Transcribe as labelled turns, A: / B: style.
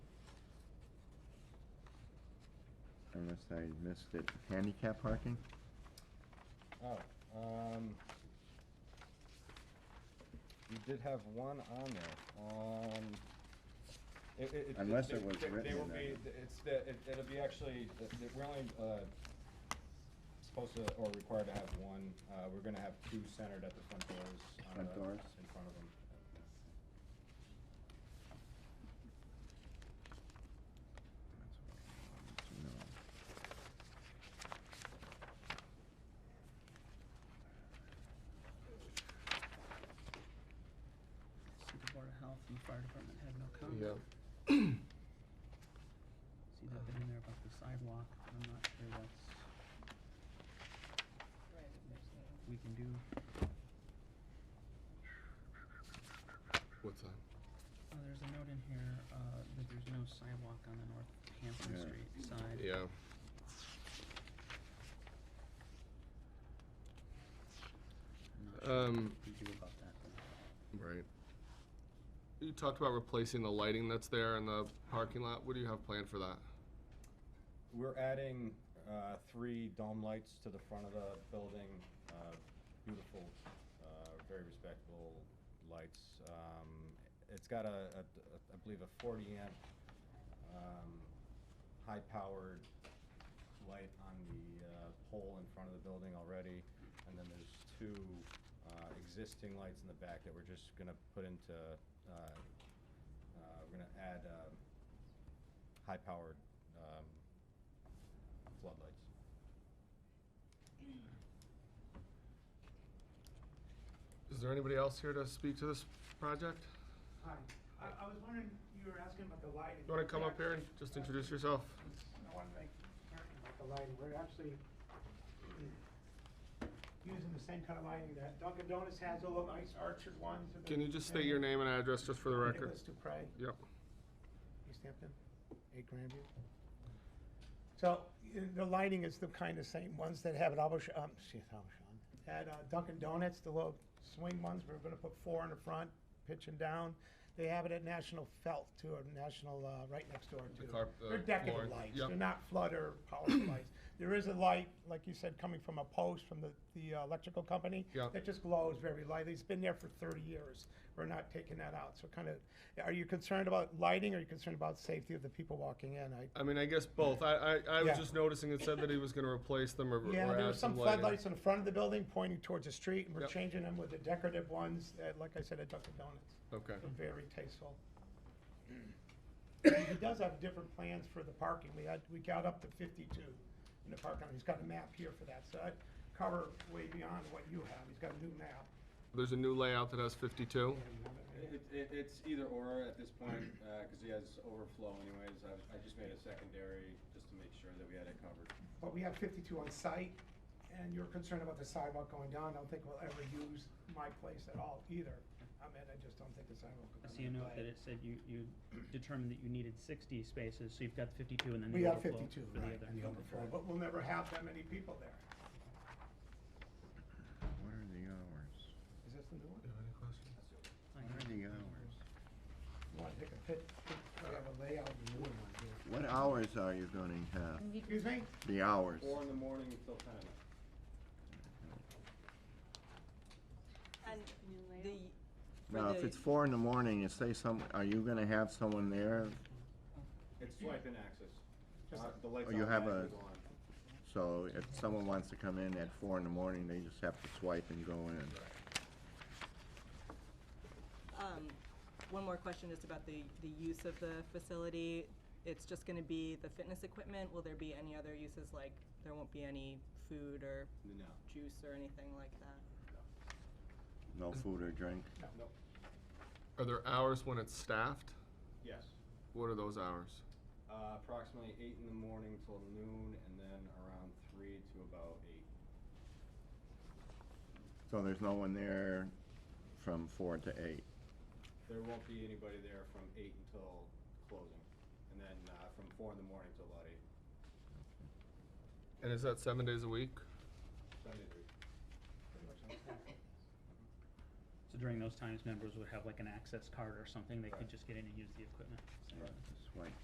A: unless I missed it, handicap parking?
B: Oh, um, we did have one on there, um, it, it.
A: Unless
B: they-
A: it was
B: they-
A: written
B: They
A: in
B: will
A: that.
B: be, it's, the- it, it'll be actually, the- the- we're only, uh, supposed to, or required to have one, uh, we're gonna have two centered at the front doors. on
A: Front
B: the-
A: doors?
B: In front of them.
C: See, the Board of Health and the Fire Department had no comment.
D: Yeah.
C: See, that bit in there about the sidewalk, but I'm not sure that's, we can do,
D: What time?
C: oh, there's a note in here, uh, that there's no sidewalk on the North Hampton
A: Yeah.
C: Street side.
D: Yeah.
C: I'm not sure
D: Um,
C: what we do about that. though.
D: Right. You talked about replacing the lighting that's there in the parking lot. What do you have planned for that?
B: We're adding, uh, three dome lights to the front of the building, uh, beautiful, uh, very respectable lights. Um, it's got a, a, a- I believe a forty amp, um, high powered light on the, uh, pole in front of the building already. And then there's two, uh, existing lights in the back that we're just gonna put into, uh, uh, we're gonna add, um, high powered, um, floodlights.
D: Is there anybody else here to speak to this project?
E: Hi, I, I was wondering, you were asking about the lighting.
D: You want to come up here and just introduce yourself?
E: I want to make, mention about the lighting, we're actually using the same kind of lighting that Dunkin' Donuts has, all the nice archer ones. and the-
D: Can you just state your name and address just for the record?
E: Nicholas Dupre,
D: Yep.
E: East Hampton, eight Grandview. So, y- the lighting is the kind of same ones that have at Albuquerque, um, shit, Albuquerque, at uh, Dunkin' Donuts, the little swing ones, we're gonna put four in the front, pitch 'em down. They have it at National Felt too, or National, uh, right next door
D: The
E: too.
D: carp-
E: They're
D: the
E: decorative
D: flooring,
E: lights,
D: yep.
E: they're not flood or power lights. There is a light, like you said, coming from a post from the, the uh, electrical company.
D: Yep.
E: That just glows very lightly, it's been there for thirty years, we're not taking that out, so kind of, are you concerned about lighting, or are you concerned about safety of the people walking in? I,
D: I mean, I guess both. I, I, I was
E: Yeah.
D: just noticing it said that he was going to replace them or,
E: yeah,
D: or
E: there were
D: add
E: some
D: some lighting.
E: floodlights in the front of the building pointing towards the street, and we're
D: Yep.
E: changing them with the decorative ones, uh, like I said, at Dunkin' Donuts.
D: Okay.
E: They're Very tasteful. Mm-hmm. He does have different plans for the parking. We had, we got up to fifty-two in the parking. lot. He's got a map here for that, so I'd cover way beyond what you have. He's got a new map.
D: There's a new layout that has 52.
F: It, it, it's either or at this point, uh 'cause cause he has overflow anyways, I, I just made a secondary just to make sure that we had it covered.
E: But we have fifty-two on site, and you're concerned about the sidewalk going down. I don't think we'll ever use my place at all either. I mean, I just don't think the sidewalk will
C: I
E: come
C: see a
E: into
C: note
E: play.
C: that it said you, you determined that you needed sixty spaces, so you've got fifty-two and then
E: We
C: the
E: have
C: overflow
E: fifty-two,
C: for the
E: right,
C: other.
E: and the overflow, but we'll never have that many people there.
A: What are the hours?
E: Is this the new one?
C: Fine,
A: What are
C: right.
A: the hours?
E: You wanna take a pic, pic- I have a layout of the new one here.
A: What hours are you gonna have?
E: Excuse me?
A: The hours?
F: Four in the morning until ten at night.
G: And the. for
A: Now, if
G: the-
A: it's four in the morning, you say some, are you gonna have someone there?
F: It's swipe and access,
E: Just-
F: uh, the lights
A: Oh, you have
F: automatically
A: a-
F: go on.
A: So if someone wants to come in at four in the morning, they just have to swipe and go in.
G: um, One more question just about the, the use of the facility. It's just gonna be the fitness equipment, will there be any other uses, like, there won't be any food or
F: No,
G: juice or anything like that?
A: No food or drink?
D: Are there hours when it's staffed?
F: yes,
D: What are those hours?
F: uh, approximately eight in the morning till noon, and then around three to about eight.
A: So there's no one there from four to eight?
F: There won't be anybody there from eight until closing, and then, uh, from four in the morning till about eight,
D: And is that seven days a week?
F: Sunday through.
C: So during those times, members would have like an access card or something, they could just get in and use the equipment.
A: Swipe.